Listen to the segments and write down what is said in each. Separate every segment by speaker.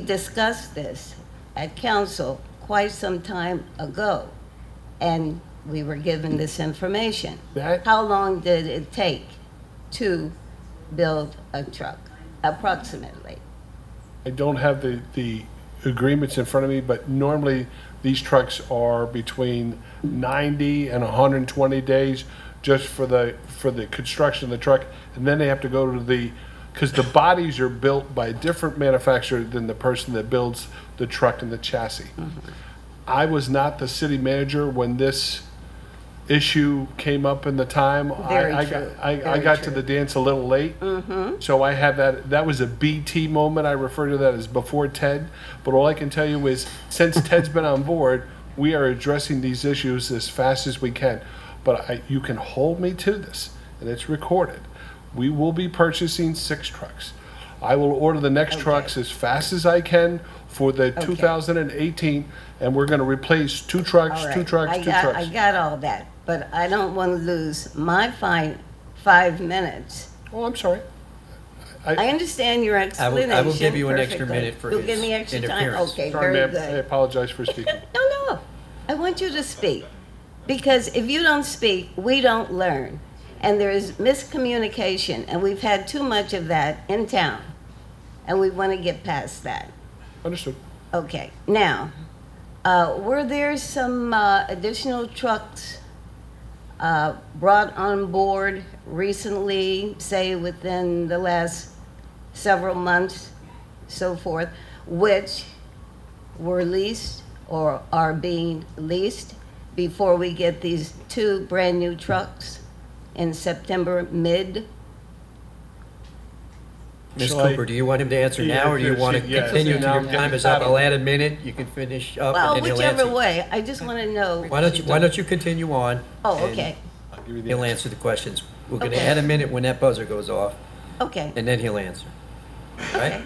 Speaker 1: We discussed this at council quite some time ago, and we were given this information.
Speaker 2: That-
Speaker 1: How long did it take to build a truck, approximately?
Speaker 2: I don't have the, the agreements in front of me, but normally these trucks are between 90 and 120 days just for the, for the construction of the truck. And then they have to go to the, because the bodies are built by a different manufacturer than the person that builds the truck and the chassis.
Speaker 1: Mm-hmm.
Speaker 2: I was not the city manager when this issue came up in the time. I-
Speaker 1: Very
Speaker 2: I,
Speaker 1: true.
Speaker 2: got- I, I
Speaker 1: Very
Speaker 2: got to
Speaker 1: true.
Speaker 2: the dance a little late. Mm-hmm. So I have that, that was a BT moment. I refer to that as before Ted. But all I can tell you is since Ted's been on board, we are addressing these issues as fast as we can. But I, you can hold me to this, and it's recorded. We will be purchasing six trucks. I will order the next trucks as fast as I can for the 2018, and we're going to replace two trucks,
Speaker 1: All right,
Speaker 2: two trucks,
Speaker 1: I
Speaker 2: two
Speaker 1: got-
Speaker 2: trucks.
Speaker 1: I got all that, but I don't want to lose my fine, five minutes.
Speaker 2: Oh, I'm sorry.
Speaker 1: I understand your
Speaker 3: I will-
Speaker 1: explanation
Speaker 3: I will give you an extra
Speaker 1: perfectly.
Speaker 3: minute for
Speaker 1: You'll give
Speaker 3: his
Speaker 1: me extra time?
Speaker 3: interference.
Speaker 1: Okay,
Speaker 2: Sorry,
Speaker 1: very
Speaker 2: ma'am. I
Speaker 1: good.
Speaker 2: apologize for speaking.
Speaker 1: No, no, I want you to speak. Because if you don't speak, we don't learn. And there is miscommunication, and we've had too much of that in town. And we want to get past that.
Speaker 2: Understood.
Speaker 1: Okay, now, uh, were there some uh, additional trucks uh, brought on board recently, say within the last several months, so forth, which were leased or are being leased before we get these two brand-new trucks in September mid?
Speaker 3: Ms.
Speaker 2: Shall I-
Speaker 3: Cooper, do you want him to answer
Speaker 2: Yeah,
Speaker 3: now, or do you
Speaker 2: yeah,
Speaker 3: want to
Speaker 2: she- yeah,
Speaker 3: continue
Speaker 2: yeah,
Speaker 3: till
Speaker 2: now
Speaker 3: your
Speaker 2: I'm
Speaker 3: time
Speaker 2: getting
Speaker 3: is up?
Speaker 2: fed up.
Speaker 3: I'll add a minute, you can finish up,
Speaker 1: Well,
Speaker 3: and then he'll
Speaker 1: whichever
Speaker 3: answer.
Speaker 1: way, I just want to know.
Speaker 3: Why don't you, why don't you continue on?
Speaker 1: Oh,
Speaker 3: and
Speaker 1: okay,
Speaker 2: I'll give you the
Speaker 3: He'll
Speaker 2: answer.
Speaker 3: answer the questions. We're going to
Speaker 1: Okay.
Speaker 3: add a minute when that buzzer goes off,
Speaker 1: okay.
Speaker 3: and then he'll answer. Right?
Speaker 1: Okay.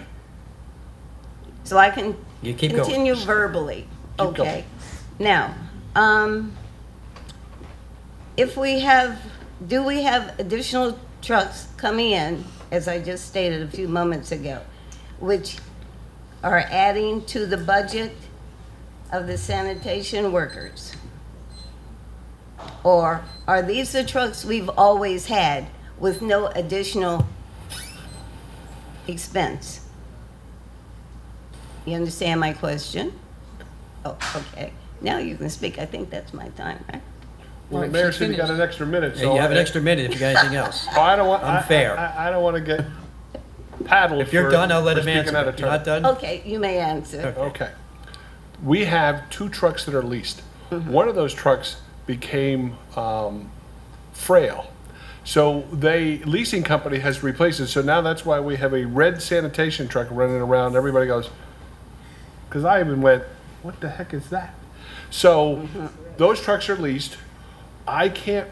Speaker 1: So I can
Speaker 3: You keep going.
Speaker 1: continue verbally,
Speaker 3: Keep going.
Speaker 1: okay? Now, um, if we have, do we have additional trucks coming in, as I just stated a few moments ago, which are adding to the budget of the sanitation workers? Or are these the trucks we've always had with no additional expense? You understand my question? Oh, okay. Now you can speak. I think that's my time, right?
Speaker 2: Well, the mayor said you got an extra minute,
Speaker 3: And
Speaker 2: so.
Speaker 3: you have an
Speaker 2: I-
Speaker 3: extra minute if you got anything else.
Speaker 2: Oh, I don't want, I,
Speaker 3: Unfair.
Speaker 2: I, I don't want to get paddled
Speaker 3: If you're
Speaker 2: for-
Speaker 3: done, I'll let
Speaker 2: for
Speaker 3: him
Speaker 2: speaking
Speaker 3: answer.
Speaker 2: out of
Speaker 3: If you're
Speaker 2: turn.
Speaker 3: not done,
Speaker 1: Okay, you may answer.
Speaker 2: Okay. We have two trucks that are leased. One of those trucks became um, frail. So they, leasing company has replaced it. So now that's why we have a red sanitation truck running around. Everybody goes, because I even went, what the heck is that? So those trucks are leased. I can't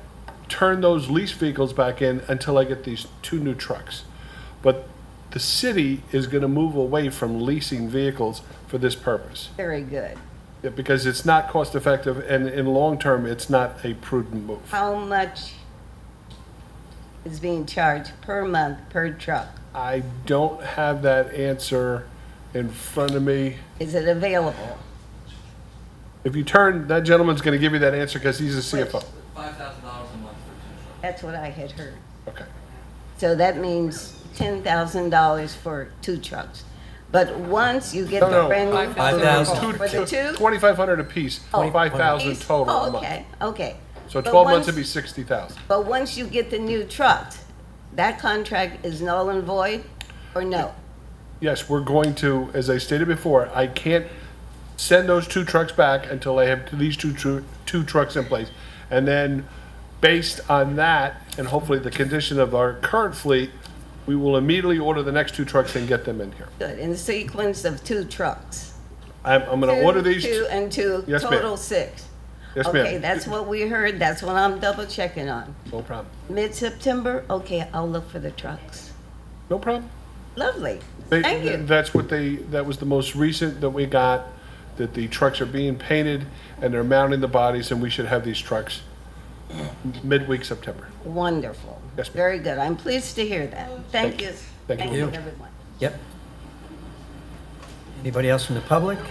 Speaker 2: turn those lease vehicles back in until I get these two new trucks. But the city is going to move away from leasing vehicles for this purpose
Speaker 1: Very good.
Speaker 2: Yeah, because it's not cost effective and in long term, it's not a prudent move.
Speaker 1: How much is being charged per month per truck?
Speaker 2: I don't have that answer in front of me.
Speaker 1: Is it available?
Speaker 2: If you turn, that gentleman's going to give you that answer because he's a CFO.
Speaker 4: Five thousand dollars a month for two trucks.
Speaker 1: That's what I had heard.
Speaker 2: Okay.
Speaker 1: So that means ten thousand dollars for two trucks. But once you get
Speaker 2: No,
Speaker 1: the
Speaker 2: no,
Speaker 1: brand new.
Speaker 3: Five thousand.
Speaker 1: For the Oh, two?
Speaker 2: 2,500 apiece,
Speaker 1: Oh.
Speaker 2: 25,000 total
Speaker 1: Oh,
Speaker 2: a month.
Speaker 1: Okay, okay.
Speaker 2: So
Speaker 1: But
Speaker 2: 12
Speaker 1: once-
Speaker 2: months would be 60,000.
Speaker 1: But once you get the new truck, that contract is null and void, or no?
Speaker 2: Yes, we're going to, as I stated before, I can't send those two trucks back until I have these two, tru- two trucks in place. And then, based on that, and hopefully the condition of our current fleet, we will immediately order the next two trucks and get them in here.
Speaker 1: Good, in the sequence of two trucks.
Speaker 2: I'm, I'm gonna
Speaker 1: Two,
Speaker 2: order these,
Speaker 1: Two
Speaker 2: two-
Speaker 1: and two,
Speaker 2: Yes, ma'am.
Speaker 1: total six.
Speaker 2: yes,
Speaker 1: Okay,
Speaker 2: ma'am,
Speaker 1: that's what we heard, that's what I'm double checking on.
Speaker 2: no problem,
Speaker 1: Mid-September, okay, I'll look for the trucks.
Speaker 2: no problem.
Speaker 1: Lovely,
Speaker 2: They-
Speaker 1: thank you.
Speaker 2: That's what they, that was the most recent that we got, that the trucks are being painted and they're mounting the bodies and we should have these trucks midweek September.
Speaker 1: Wonderful.
Speaker 2: Yes, ma'am.
Speaker 1: Very good, I'm pleased to hear that. Thank you.
Speaker 2: Thank you.
Speaker 1: everyone.
Speaker 3: yep. Anybody else from the public?